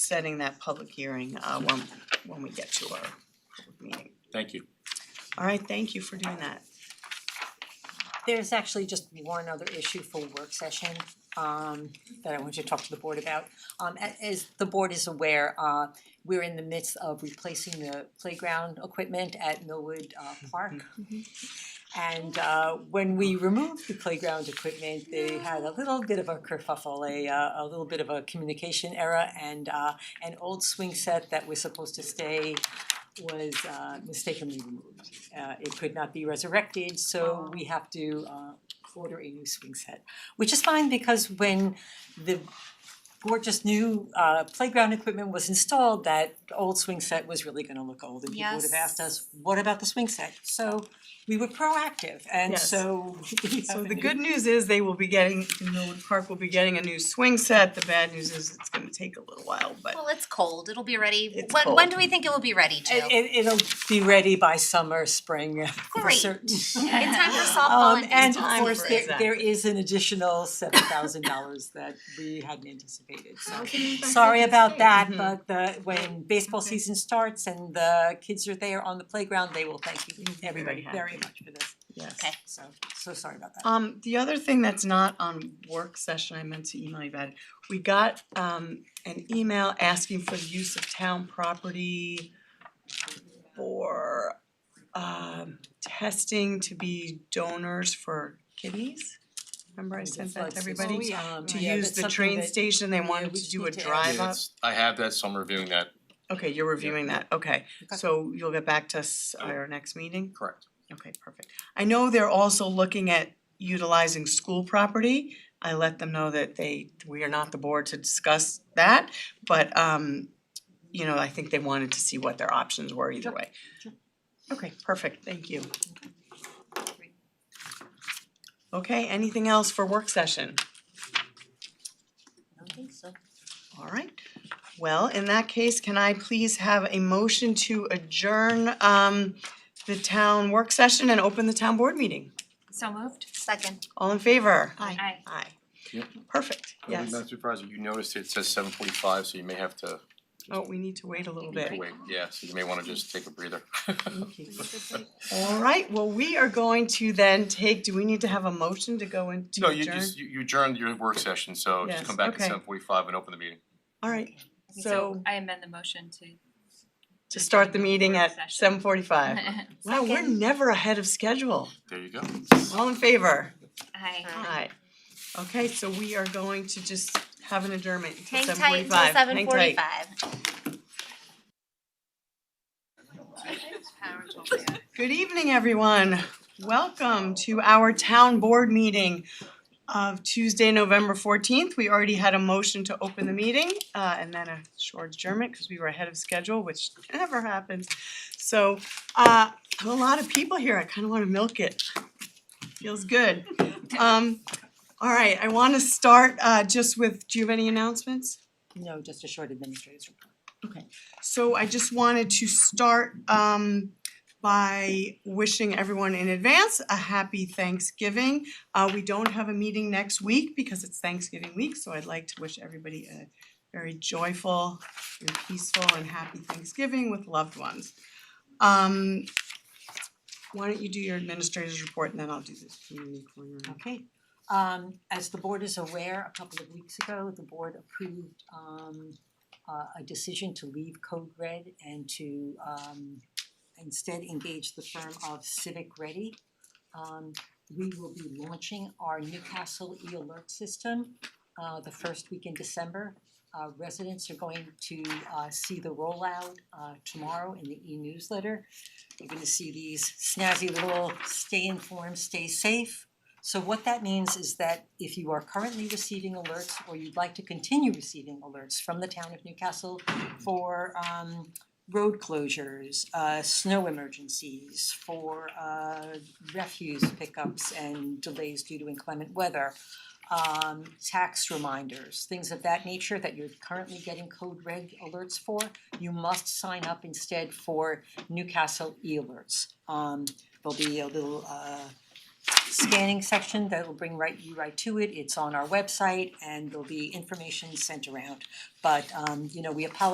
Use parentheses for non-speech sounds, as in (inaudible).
setting that public hearing uh when when we get to our public meeting. Thank you. All right, thank you for doing that. There's actually just one other issue for work session um that I want you to talk to the board about. Um a- as the board is aware, uh we're in the midst of replacing the playground equipment at Millwood uh Park. And uh when we removed the playground equipment, they had a little bit of a kerfuffle, a uh a little bit of a communication error and uh an old swing set that was supposed to stay was uh mistakenly removed uh it could not be resurrected, so we have to uh order a new swing set. Which is fine because when the gorgeous new uh playground equipment was installed, that old swing set was really gonna look old and people would have Yes. asked us, what about the swing set? So we were proactive and Yes. so we (laughs) So have the a good new- news is they will be getting, Millwood Park will be getting a new swing set. The bad news is it's gonna take a little while, but Well, it's cold, it'll be ready, It's when when cold. do we think it will be ready to? It it it'll be ready by summer, spring, uh, for Great. (laughs) certain. In (laughs) time for softball Um and and baseball. of time course, for there that. there is an additional seven thousand dollars that we hadn't anticipated, so. Okay. Sorry about that, Mhm. but the when baseball Okay. season starts and the kids are there on the playground, they will thank you, You'll be very everybody, very happy. much for this, yes. Okay. so, so sorry about that. Um, the other thing that's not on work session, I meant to email you about it, we got um an email asking for the use of town property for um testing to be donors for kidneys. Remember I sent that to everybody? um, To use the train station, they wanted we to just do a need to add- drive up. I have that, so I'm reviewing that, Okay, you're reviewing that, okay. Okay. So you'll get back to us at our next meeting? correct. Okay, perfect. I know they're also looking at utilizing school property. I let them know that they, we are not the board to discuss that, but um, you know, I think they wanted to see what their options were either Sure, way. sure. Okay, perfect, thank you. Okay, anything else for work session? I don't think so. All right, well, in that case, can I please have a motion to adjourn um the town work session and open the town board meeting? So moved? Second. All in favor? Aye. Aye. Yep. Perfect, yes. Madam Supervisor, you noticed it says seven forty-five, so you may have to Oh, we need to wait a little bit. wait, yeah, so you may wanna just take a breather. (laughs) All right, well, we are going to then take, do we need to have a motion to go into No, you adjourn? just, you you adjourned your work session, so Yes, just come back at okay. seven forty-five and open the meeting. All right, so I amend the motion to. to start the meeting at seven (laughs) forty-five. Wow, we're Second. never ahead of schedule. There you go. All in favor? (laughs) Aye. Aye. Okay, so we are going to just have an adjournment until Hang seven tight forty-five. until seven forty-five. Good evening, everyone. Welcome to our town board meeting of Tuesday, November fourteenth. We already had a motion to open the meeting uh, and then a short adjournment because we were ahead of schedule, which (laughs) never happens. So uh, I have a lot of people here. I kind of want to milk it. Feels good. Um, All right, I want to start uh, just with, do you have any announcements? No, just a short administrative report. So I just wanted to start um by wishing everyone in advance a happy Thanksgiving. Uh we don't have a meeting next week because it's Thanksgiving week, so I'd like to wish everybody a very joyful and peaceful and happy Thanksgiving with loved ones. Um why don't you do your administrator's report and then I'll do this community corner. Okay, um as the board is aware, a couple of weeks ago, the board approved um uh, a decision to leave Code Red and to um instead engage the firm of Civic Ready. Um we will be launching our Newcastle e-alert system uh the first week in December. Uh residents are going to uh see the rollout uh tomorrow in the e-newsletter. You're gonna see these snazzy little stay informed, stay safe so what that means is that if you are currently receiving alerts or you'd like to continue receiving alerts from the town of Newcastle for um road closures, uh snow emergencies, for uh refuse pickups and delays due to inclement weather, um tax reminders, things of that nature that you're currently getting code red alerts for, you must sign up instead for Newcastle e-alerts. Um there'll be a little uh scanning section that will bring right, you right to it. It's on our website and there'll be information sent around. But um, you know, we apologize